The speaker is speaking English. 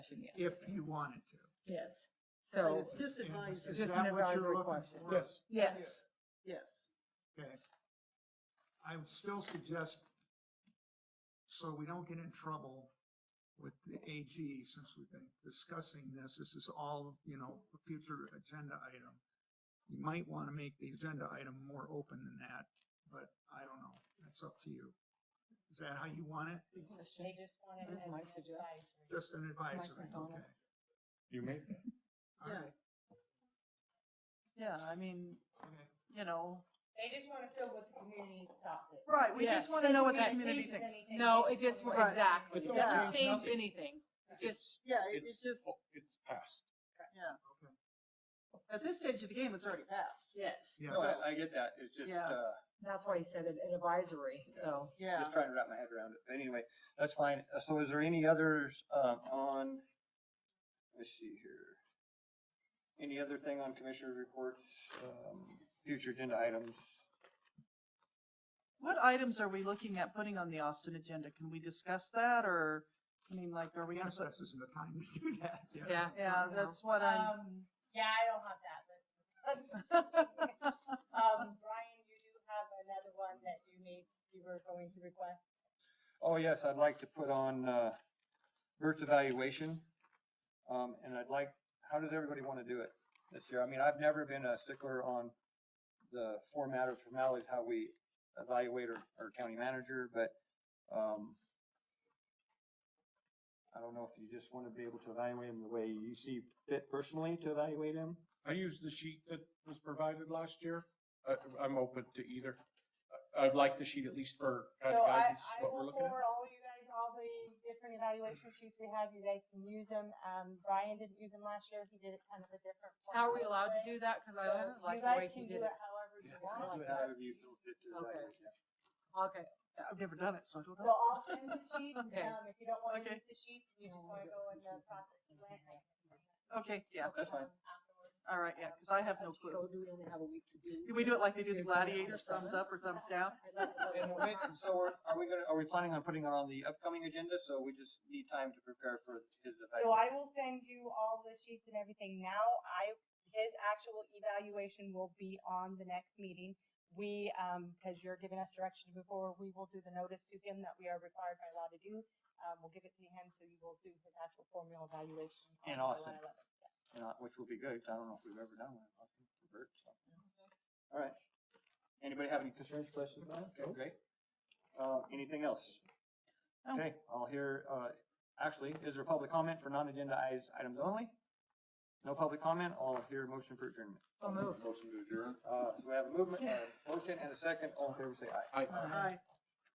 discussion, yeah. if you wanted to. Yes. And So, it's just And advice. Is Just an that what advisory you're looking question. for? Yes, yes, Yes, Okay. I would still suggest, so we don't get in trouble with the AG, since we've been discussing this, this is all, you know, a future agenda item. You might want to make the agenda item more open than that, but I don't know. That's up to you. Is that how you want it? They just want it That's as an my suggestion. advisory. Just an advisory, Mike okay? McDonald. you made that. All right, yeah, I mean, okay. you know, They just want to feel what the community thought. it. right, we Yes. just want to know what the That community changes thinks. anything. no, it just, wa- Right. exactly, it But don't doesn't change change nothing. anything, just, Yeah, it- it's It's, just, it's passed. yeah. Okay. At this stage of the game, it's already passed. yes. Yeah. No, I, I get that. It's just, Yeah. uh, That's why he said it, an advisory, so. Yeah, just trying to wrap my head around it. But Anyway, that's fine. Uh, So is there any others, um, on, let's see here. Any other thing on commissioner reports, um, future agenda items? what items are we looking at putting on the Austin agenda? Can we discuss that or, I mean, like, are we gonna Yes, put? this isn't the time to do that. Yeah. Yeah, that's what I'm. Um, yeah, I don't have that list. Um, Brian, you do have another one that you need, you were going to request. Oh, yes, I'd like to put on, uh, Bert's evaluation. Um, and I'd like, how does everybody want to do it this year? I mean, I've never been a stickler on the format or formalities, how we evaluate our, our county manager, but, um, I don't know if you just want to be able to evaluate him the way you see fit personally to evaluate him. I used the sheet that was provided last year. I, I'm open to either. I- I'd like the sheet at least for kind So of I, guidance, I what we're will looking at. forward all you guys, all the different evaluation sheets we have, you guys can use them. Um, Brian didn't use them last year, he did it kind of a different. How are we allowed to do that? Cause I So don't You like the way guys he can do did it it. however you Do want. it however you feel fit to Okay. evaluate him. Okay, I've never done it, so I don't So know. I'll send the sheets, um, Okay. if you don't want to Okay. use the sheets, you just want to go in the process you went. I can bring that Okay, yeah, That's fine. um, afterwards. Um, all right, yeah, because I have no clue. so do we only have a week to do? Do we do it like they do the gladiators, thumbs up or thumbs down? And wait, so are, are we gonna, are we planning on putting it on the upcoming agenda? So we just need time to prepare for his So evaluation. I will send you all the sheets and everything now. I, his actual evaluation will be on the next meeting. We, um, because you're giving us direction before, we will do the notice to him that we are required by law to do. Um, we'll give it to him, so you will do his actual formal evaluation. on In Austin. July 11th. And, uh, Which will be good. 'cause I don't know if we've ever done one. I think for Bert, so. All right. Anybody have any concerns, questions about it? Okay, great. Uh, anything else? No. Okay, I'll hear, uh, actually, is there public comment for non-agenda eyes- items only? No public comment. I'll hear a motion for adjournment. So moved. Motion to adjourn. Uh, so we have a movement, a motion and a second. All in favor, say aye. I, Aye.